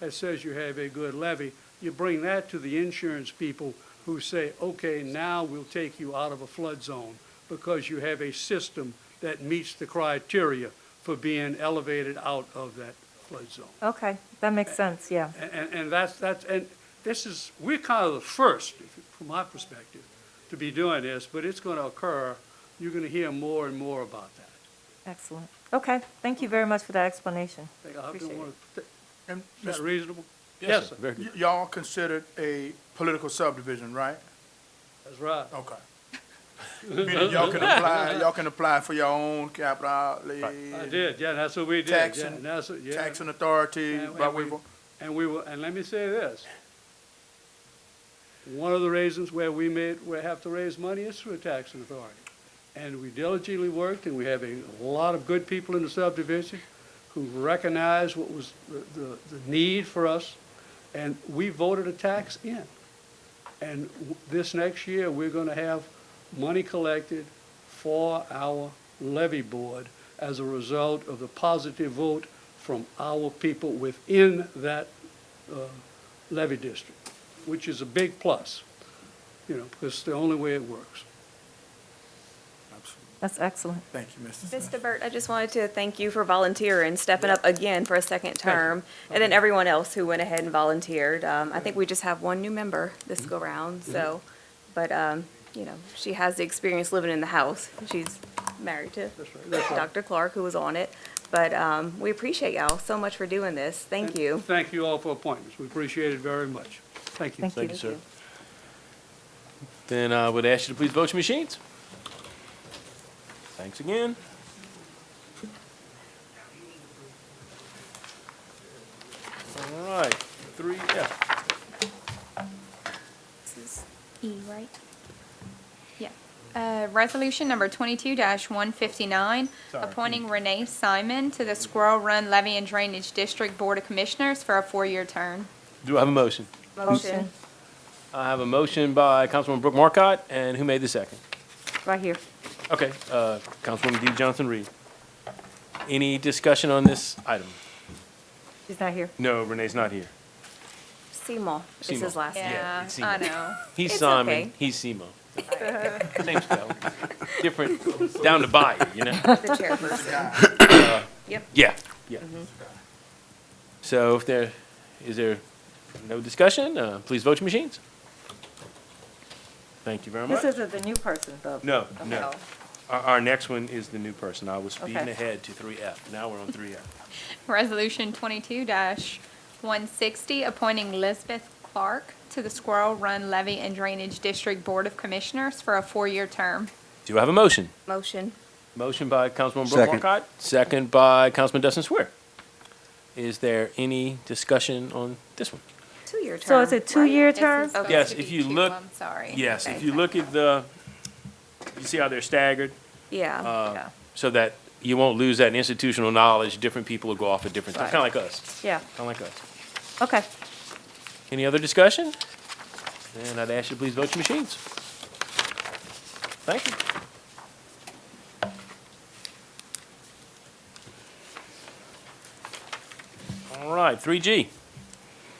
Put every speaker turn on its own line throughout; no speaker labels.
that says you have a good levy. You bring that to the insurance people who say, okay, now we'll take you out of a flood zone because you have a system that meets the criteria for being elevated out of that flood zone.
Okay, that makes sense, yeah.
And- And, and that's, that's, and this is, we're kind of the first, if you- from my perspective, to be doing this, but it's going to occur. You're going to hear more and more about that.
Excellent. Okay, thank you very much for that explanation.
I think I don't
Appreciate
wanna- Is
And
that
Mr.
reasonable?
Yes,
sir.
sir. Very
y- y'all considered a political subdivision, right?
That's right.
Okay. Meaning y'all can apply, y'all can apply for your own capital outlay.
I did, yeah, that's what we did. yeah,
Taxing-
and that's what- yeah.
Taxing authority,
And- and
right,
we-
we've-
And we were, and let me say this. One of the reasons where we made, we have to raise money is through a taxing authority. And we diligently worked, and we have a lot of good people in the subdivision who recognized what was the- the, the need for us, and we voted a tax in. And w- this next year, we're gonna have money collected for our levy board as a result of the positive vote from our people within that uh, levy district, which is a big plus, you know, because it's the only way it works.
That's excellent.
Thank you, Mr. Smith.
Mr. Burt, I just wanted to thank you for volunteering, stepping up again for a second term, and then everyone else who went ahead and volunteered. Um, I think we just have one new member this go-round, so, but, um, you know, she has the experience living in the house. She's married to
That's right, that's right.
Dr. Clark, who was on it. But um, we appreciate y'all so much for doing this. Thank
And
you.
Thank you all for appointments. We appreciate it very much. Thank you.
Thank you.
Thank you, sir. Then I would ask you to please vote your machines. Thanks again. All right, three F.
This is E, right? Yeah. Uh, Resolution number 22-159, appointing Renee Simon to the Squirrel Run Levy and Drainage District Board of Commissioners for a four-year term.
Do I have a motion?
Motion,
I have a motion by Councilwoman Brooke Marcotte, and who made the second?
right here.
Okay, uh, Councilwoman D. Johnson Reed. Any discussion on this item?
She's not here.
No, Renee's not here.
Seymour is
Seymour.
his last name.
Yeah,
Yeah,
it's
I
Seymour.
know.
He's
It's
Simon.
okay.
He's Simo. Same spell. Different, down to buyer, you know?
The chairperson. Yep.
Yeah, yeah. So if there, is there no discussion, uh, please vote your machines. Thank you very much.
This isn't the new person, though.
No,
Okay.
no. Our, our next one is the new person. I was speeding
Okay.
ahead to three F. Now we're on three F.
Resolution 22-160, appointing Lisbeth Clark to the Squirrel Run Levy and Drainage District Board of Commissioners for a four-year term.
Do I have a motion?
Motion.
Motion by Councilman Brooke Markcott, second by Councilman Dustin Swear. Is there any discussion on this one?
Two-year term.
So it's a
right?
two-year
This is
term?
supposed
Yes,
to
if
be
you
two,
look-
I'm sorry.
Yes, if
Okay.
you look at the, you see how they're staggered?
Yeah.
Yeah.
so that you won't lose that institutional knowledge. Different people will go off at different times,
Right.
kind of like us,
Yeah,
kind of like us.
okay.
Any other discussion? Then I'd ask you to please vote your machines. Thank you. All right, three G.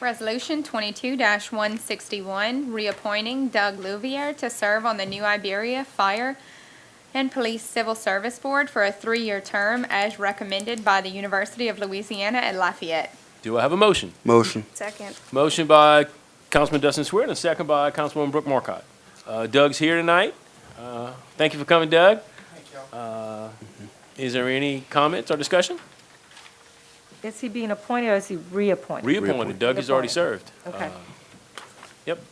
Resolution 22-161, reappointing Doug Louvier to serve on the New Iberia Fire and Police Civil Service Board for a three-year term as recommended by the University of Louisiana at Lafayette.
Do I have a motion?
Motion.
Second.
Motion by Councilman Dustin Swear and a second by Councilwoman Brooke Marcotte. Uh, Doug's here tonight. Uh, thank you for coming, Doug. Uh, Is there any comments or discussion?
Is he being appointed or is he reappointed?
Reappointed. Doug has already served.
Okay.
Yep.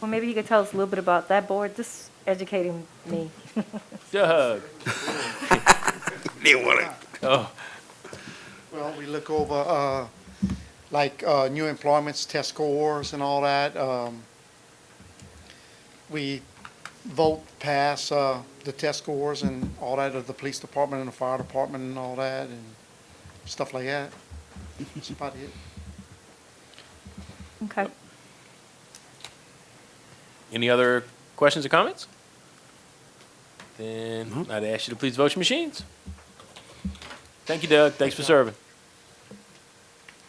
Well, maybe he could tell us a little bit about that board, just educating me.
Doug. Oh,
Well, we look over, uh, like, uh, new employments, test scores and all that. Um, we vote pass, uh, the test scores and all that of the police department and the fire department and all that and stuff like that. That's about it.
Okay.
any other questions or comments? Mm-hmm. Then I'd ask you to please vote your machines. Thank you, Doug. Thanks for serving.